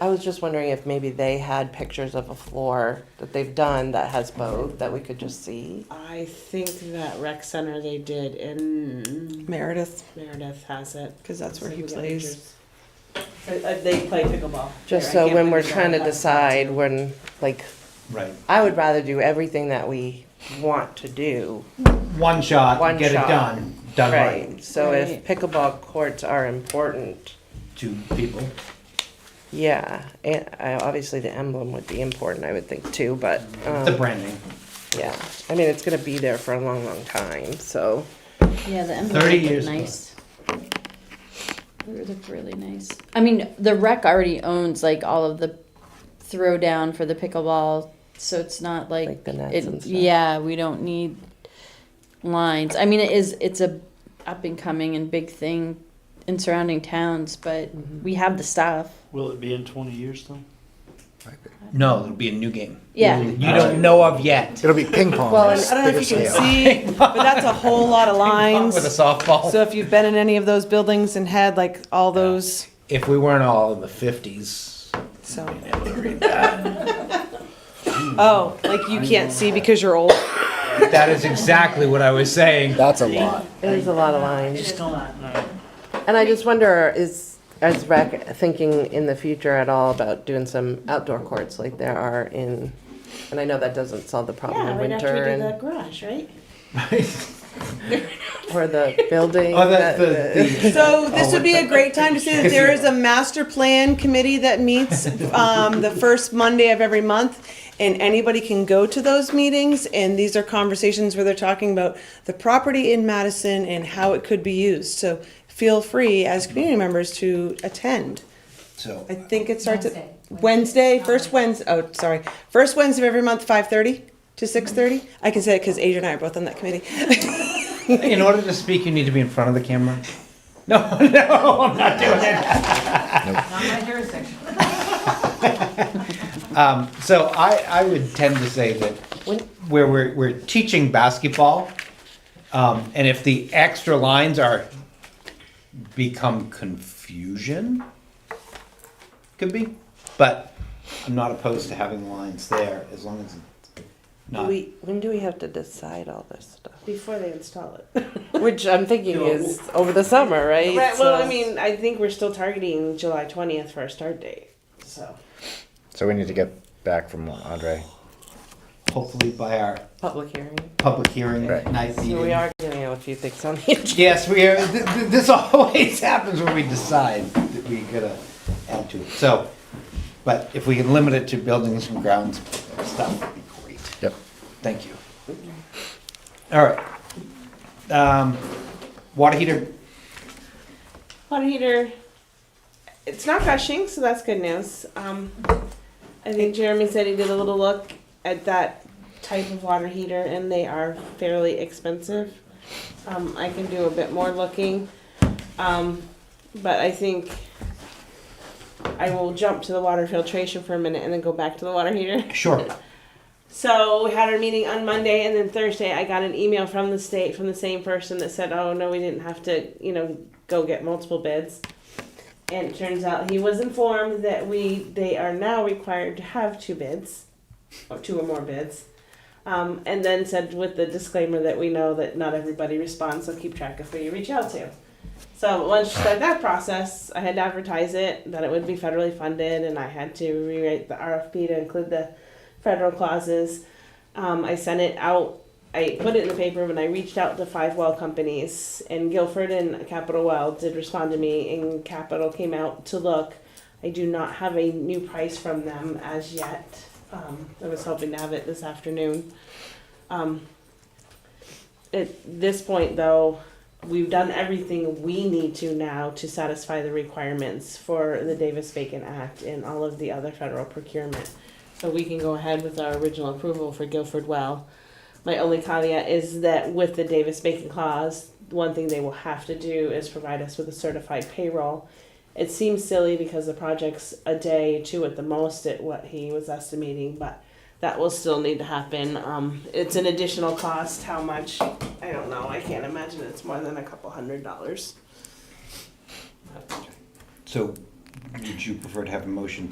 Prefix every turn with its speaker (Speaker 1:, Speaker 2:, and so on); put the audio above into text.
Speaker 1: I was just wondering if maybe they had pictures of a floor that they've done that has both that we could just see.
Speaker 2: I think that rec center they did in
Speaker 3: Meredith,
Speaker 2: Meredith has it.
Speaker 3: because that's where
Speaker 2: So
Speaker 3: he
Speaker 2: we got
Speaker 3: plays.
Speaker 2: pictures. Uh, uh, They play pickleball.
Speaker 1: Just
Speaker 2: there. I
Speaker 1: so
Speaker 2: can't
Speaker 1: when we're
Speaker 2: remember
Speaker 1: trying to
Speaker 2: that.
Speaker 1: decide when, like,
Speaker 4: Right.
Speaker 1: I would rather do everything that we want to do.
Speaker 4: One shot,
Speaker 1: One
Speaker 4: get
Speaker 1: shot.
Speaker 4: it done. Done right.
Speaker 1: Right. So if
Speaker 2: Right.
Speaker 1: pickleball courts are important,
Speaker 4: Two people.
Speaker 1: yeah, and uh, obviously the emblem would be important, I would think too, but,
Speaker 4: the
Speaker 1: um,
Speaker 4: branding.
Speaker 1: yeah. I mean, it's gonna be there for a long, long time, so.
Speaker 5: Yeah, the emblem
Speaker 4: 30
Speaker 5: looked
Speaker 4: years
Speaker 5: nice. They looked really nice. I mean, the rec already owns like all of the throwdown for the pickleball, so it's not like,
Speaker 1: Like the nets
Speaker 5: it,
Speaker 1: and stuff.
Speaker 5: yeah, we don't need lines. I mean, it is it's a up and coming and big thing in surrounding towns, but
Speaker 1: Mm-hmm.
Speaker 5: we have the stuff.
Speaker 6: Will it be in twenty years though?
Speaker 4: No, it'll be a new game. Uh,
Speaker 5: Yeah.
Speaker 4: You don't know of yet.
Speaker 7: It'll be ping pong.
Speaker 3: Well, and
Speaker 7: is
Speaker 3: I don't know if
Speaker 7: bigger
Speaker 3: you can
Speaker 7: scale.
Speaker 3: see, but that's a whole lot of lines.
Speaker 4: With a softball.
Speaker 3: So if you've been in any of those buildings and had like all those,
Speaker 4: if we weren't all in the 50s,
Speaker 3: so. Oh, like you can't see because you're old.
Speaker 4: that is exactly what I was saying.
Speaker 7: That's a lot.
Speaker 1: It is a lot of
Speaker 2: It
Speaker 1: lines.
Speaker 2: is a lot.
Speaker 1: And I just wonder, is, is rec thinking in the future at all about doing some outdoor courts like there are in, and I know that doesn't solve the problem
Speaker 2: Yeah,
Speaker 1: in
Speaker 2: right
Speaker 1: winter
Speaker 2: after we do the
Speaker 1: and,
Speaker 2: garage, right?
Speaker 1: or the building.
Speaker 4: Oh, that's
Speaker 1: that-
Speaker 4: the,
Speaker 1: that-
Speaker 4: the
Speaker 3: So this would be a great time to say that there is a master plan committee that meets um, the first Monday of every month. And anybody can go to those meetings and these are conversations where they're talking about the property in Madison and how it could be used. So feel free as community members to attend.
Speaker 4: so
Speaker 3: I think it starts at Wednesday, first Wednesday, oh, sorry, first Wednesday of every month, five thirty to six thirty. I can say it because Adrian and I are both on that committee.
Speaker 4: in order to speak you need to be in front of the camera. No, no, I'm not doing it.
Speaker 8: Not my jurisdiction.
Speaker 4: Um, so I, I would tend to say that where we're, we're teaching basketball, um, and if the extra lines are become confusion, could be, but I'm not opposed to having lines there as long as it's
Speaker 1: Do
Speaker 4: not.
Speaker 1: we, when do we have to decide all this stuff?
Speaker 2: Before they install it.
Speaker 1: Which I'm thinking is over the summer, right?
Speaker 2: Right, well,
Speaker 1: So-
Speaker 2: I mean, I think we're still targeting July twentieth for our start date, so.
Speaker 7: So we need to get back from Andre.
Speaker 4: Hopefully by our
Speaker 1: Public hearing.
Speaker 4: public hearing
Speaker 7: Right.
Speaker 4: night meeting.
Speaker 1: So we are getting a few things on the agenda.
Speaker 4: Yes, we are. Th- th- this always happens when we decide that we gotta add to it. So, but if we can limit it to buildings and grounds stuff, would be great.
Speaker 7: Yep.
Speaker 4: Thank you. All right. Um, water heater.
Speaker 2: Water heater, it's not gushing, so that's good news. Um, I think Jeremy said he did a little look at that type of water heater, and they are fairly expensive. Um, I can do a bit more looking, um, but I think I will jump to the water filtration for a minute and then go back to the water heater.
Speaker 4: Sure.
Speaker 2: So we had our meeting on Monday, and then Thursday I got an email from the state from the same person that said, "Oh no, we didn't have to, you know, go get multiple bids." And it turns out he was informed that we they are now required to have two bids, or two or more bids, um, and then said with the disclaimer that we know that not everybody responds, so keep track of who you reach out to. So once she started that process, I had to advertise it that it would be federally funded, and I had to rewrite the RFP to include the federal clauses. Um, I sent it out. I put it in the paper when I reached out to five well companies, and Guilford and Capital Well did respond to me, and Capital came out to look. I do not have a new price from them as yet. Um, I was hoping to have it this afternoon. Um, at this point, though, we've done everything we need to now to satisfy the requirements for the Davis Bacon Act and all of the other federal procurement. So we can go ahead with our original approval for Guilford Well. My only caveat is that with the Davis Bacon clause, one thing they will have to do is provide us with a certified payroll. It seems silly because the project's a day, two at the most at what he was estimating, but that will still need to happen. Um, it's an additional cost, how much, I don't know, I can't imagine it's more than a couple hundred dollars.
Speaker 4: So, would you prefer to have a motion